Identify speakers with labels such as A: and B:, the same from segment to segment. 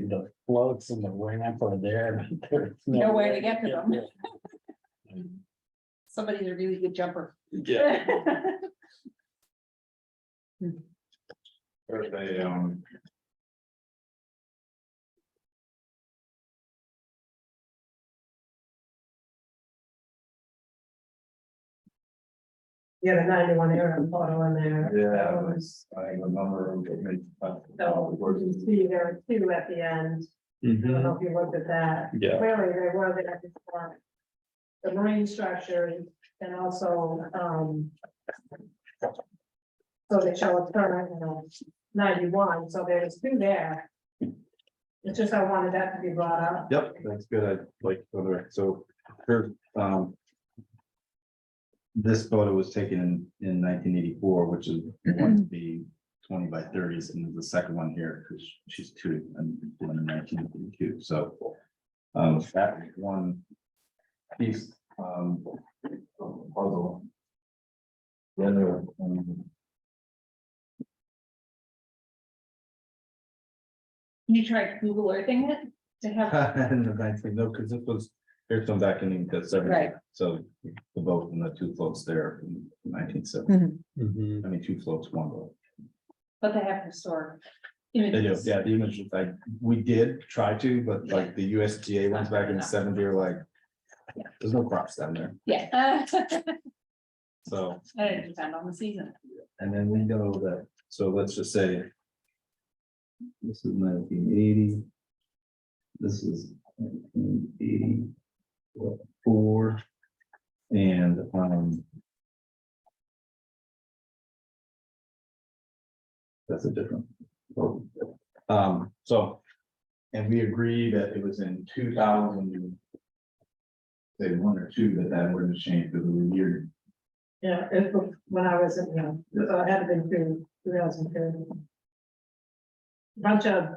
A: dude, the floats and the ramp are there. but there's
B: No way to get to them.
A: Yeah.
B: Somebody's a really good jumper.
A: Yeah,
C: There's a, um.
D: Yeah, the ninety-one era photo in there. That
C: Yeah,
D: was-
C: I remember it made.
D: So you can see there were two at the end. I don't
A: Mhm.
D: know if you looked at that.
A: yeah,
D: Clearly, they were the at the start. The marine structure and also, um. So they show a turn in a ninety-one, so there was two there. It's just I wanted that to be brought up.
C: Yep, that's good. I like, the other- so, her, um. This photo was taken in in nineteen eighty-four, which is going to be twenty by thirties, and the second one here, because she's two, and one in nineteen eighty-two, so. Um, that one piece, um, of the puzzle. The other, um,
B: You tried Google earthing it to have,
C: In the nineteen, no, because it was, here's some back in the
B: Right.
C: seventy, so the boat and the two floats there in nineteen seventy,
B: Mm-hmm.
A: Mhm.
C: I mean, two floats, one boat.
B: but they have historic
C: They do,
B: images.
C: yeah, the image, is like, we did try to, but like the USDA ones back in the seventy are like.
B: Yeah.
C: There's no crops down there,
B: Yeah.
C: so,
B: And it depends on the season.
C: and then we know that, so let's just say. This is nineteen eighty. This is nineteen eighty four. And, um. That's a different. oh, Um, so. And we agree that it was in two thousand. Say one or two that that were to change for the year.
D: Yeah, it was when I was, in, you know, so it had been through two thousand two. Bunch of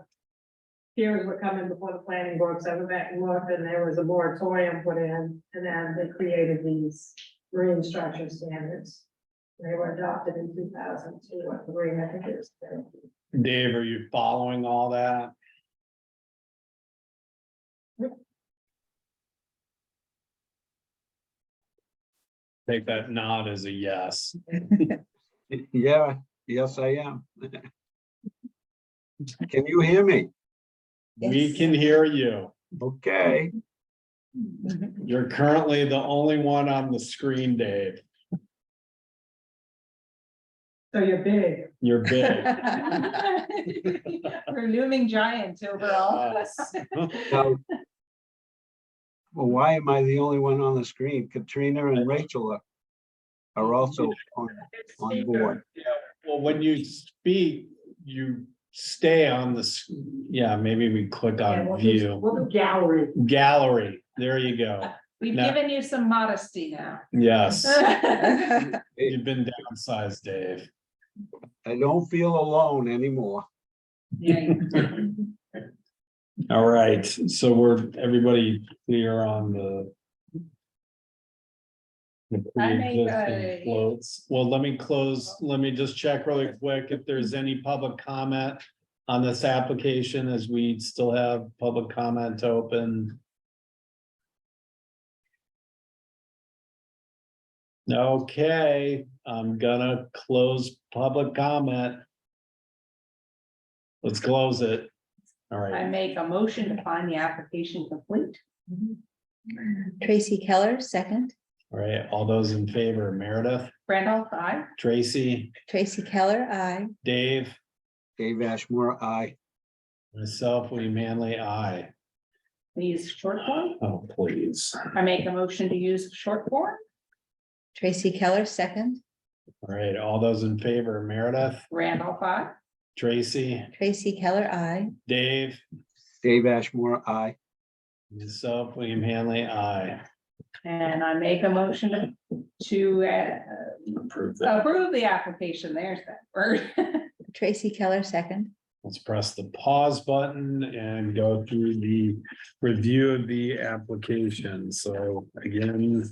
D: hearings were coming before the planning board, so I went back and looked, and there was a moratorium put in, and then they created these marine structure standards. They were adopted in two thousand two or three, I think it was.
A: Dave, are you following all that? Take that nod as a yes.
E: Yeah, yes, I am. Can you hear me?
A: We can hear you.
E: Okay,
A: You're currently the only one on the screen, Dave.
D: So you're big.
A: You're big.
B: We're looming giants over all
A: Uh,
B: of us.
E: now. Well, why am I the only one on the screen? Katrina and Rachel are- are also on, on board.
A: Well, when you speak, you stay on the, s- yeah, maybe we click on Uh, view,
D: What gallery.
A: gallery. There you go.
B: We've
A: No.
B: given you some modesty now.
A: Yes, you've been downsized, Dave.
E: I don't feel alone anymore.
B: Right.
A: All right, so we're, everybody clear on the. The
B: I make
A: pre-existing
B: a-
A: floats. Well, let me close, let me just check really quick if there's any public comment. On this application, as we still have public comment open. Okay, I'm gonna close public comment. Let's close it. All right.
B: I make a motion to find the application complete.
F: Tracy Keller, second.
A: All right, all those in favor, Meredith,
B: Randolph, I.
A: Tracy,
F: Tracy Keller, I.
A: Dave,
E: Dave Ashmore, I.
A: myself, William Manley, I.
B: These short form.
A: Oh, please.
B: I make a motion to use short form.
F: Tracy Keller, second.
A: All right, all those in favor, Meredith,
B: Randolph, I.
A: Tracy,
F: Tracy Keller, I.
A: Dave,
E: Dave Ashmore, I.
A: myself, William Hanley, I.
B: And I make a motion to- to uh,
A: Approve that.
B: approve the application. There's that word.
F: Tracy Keller, second.
A: Let's press the pause button and go through the review of the application. So again,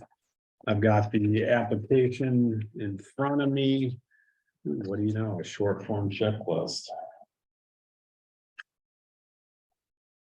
A: I've got the application in front of me. What do you know, a short form checklist.